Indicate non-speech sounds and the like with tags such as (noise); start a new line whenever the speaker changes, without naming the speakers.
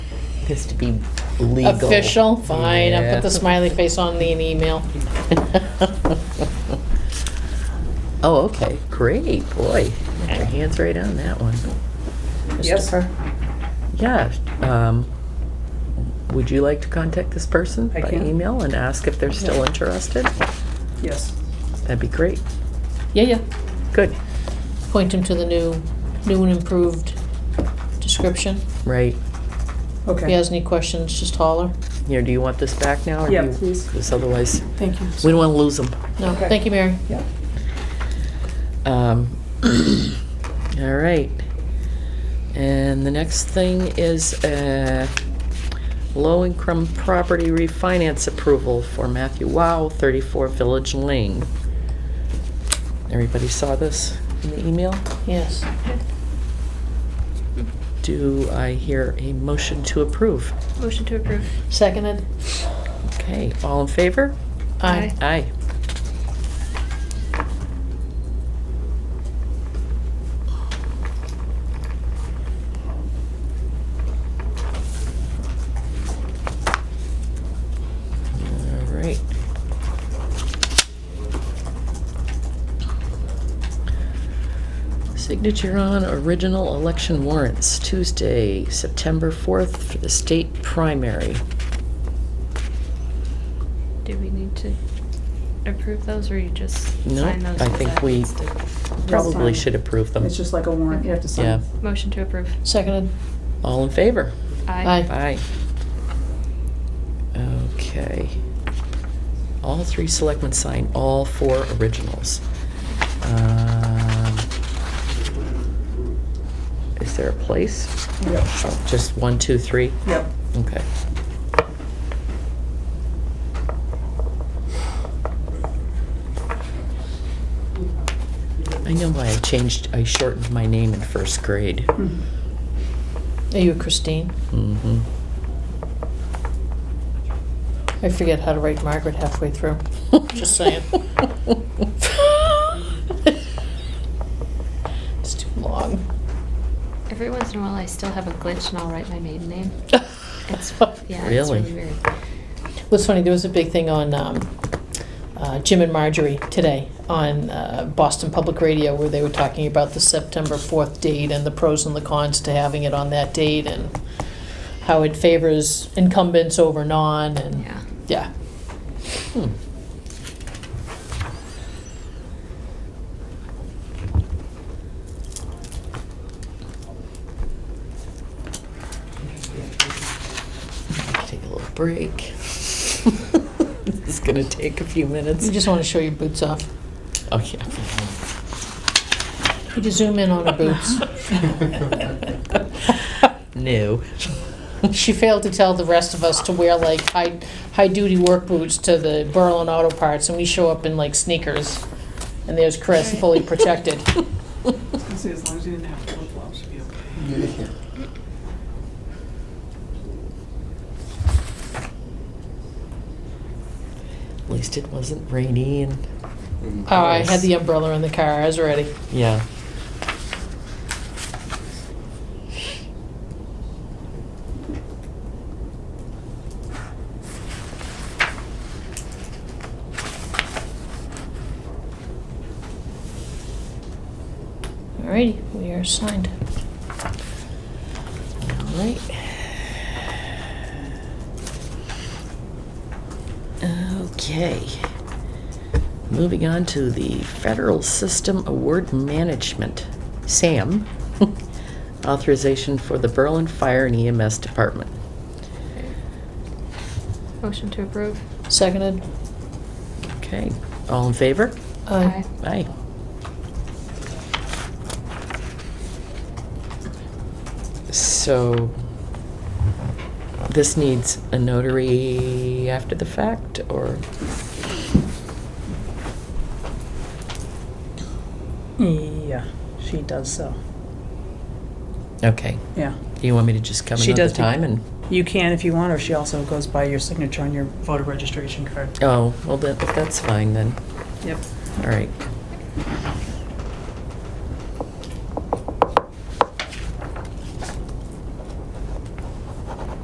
this to be legal.
Official, fine, I'll put the
Yeah.
smiley face on the email.
(laughs) Oh, okay, great, boy. Got Your hands right on that one. Christopher? Yeah, um, would you like to contact this person
I
by
can.
email and ask if they're still interested?
Yes.
That'd be great.
Yeah, yeah,
Good,
point him to the new, new and improved description.
right.
If he
Okay.
has any questions, just holler.
You know, do you want this back now? or do
Yeah,
you-
please.
Because otherwise,
Thank you.
we don't want to lose them.
No,
Okay.
thank you, Mary.
Yeah.
Um, (clears throat) all right. And the next thing is uh low-income property refinance approval for Matthew Wow, 34 Village Lane. Everybody saw this in the email?
Yes.
Do I hear a motion to approve?
Motion to approve.
Seconded?
Okay, all in favor?
Aye.
Aye. All right. Signature on original election warrants, Tuesday, September 4th for the state primary.
Do we need to approve those, or you just
No,
sign those?
I
as
think
that?
we probably
fine.
should approve them.
It's just like a warrant, you have to
Um, Yeah.
sign.
Motion to approve.
Seconded?
All in favor?
Aye.
Aye. Okay. All three selectmen sign all four originals. Um, Is there a place?
Yep,
Oh, Just one, two, three?
yep.
Okay. I know why I changed, I shortened my name in first grade.
Mhm.
Are you Christine?
Mm-hmm.
I forget how to write Margaret halfway through. (laughs) Just saying. (laughs) It's too long. (laughs)
Every once in a while, I still have a glitch, and I'll write my maiden name.
(laughs)
It's, yeah, it's
Really?
really weird.
What's funny, there was a big thing on um, uh, Jim and Marjorie today on uh, Boston Public Radio where they were talking about the September 4th date and the pros and the cons to having it on that date and how it favors incumbents over non and,
Yeah.
yeah.
Hmm. Take a little break. (laughs) It's gonna take a few minutes.
You just want to show your boots off.
Oh, yeah.
Could you zoom in on her
(laughs)
boots? (laughs)
No.
She failed to tell the rest of us to wear like high, high-duty work boots to the Berlin Auto Parts and we show up in like sneakers. And there's Chris fully protected. Oh,
I was gonna say, as long as you didn't have flip-flops, it'd be okay.
At least it wasn't rainy and,
Oh, I had the umbrella in the car, I was ready.
yeah.
Alrighty, we are signed.
All right. Okay. Moving on to the Federal System Award Management, SAM, (laughs) authorization for the Berlin Fire and EMS Department.
Motion to approve.
Seconded? uh,
Okay, all in favor?
Aye.
Aye. So, this needs a notary after the fact, or?
Yeah, she does so.
Okay.
Yeah.
Do you want me to just come
She
another
does be-
time and?
You can if you want, or she also goes by your signature on your voter registration card.
Oh, well, that, that's fine then.
Yep.
All right.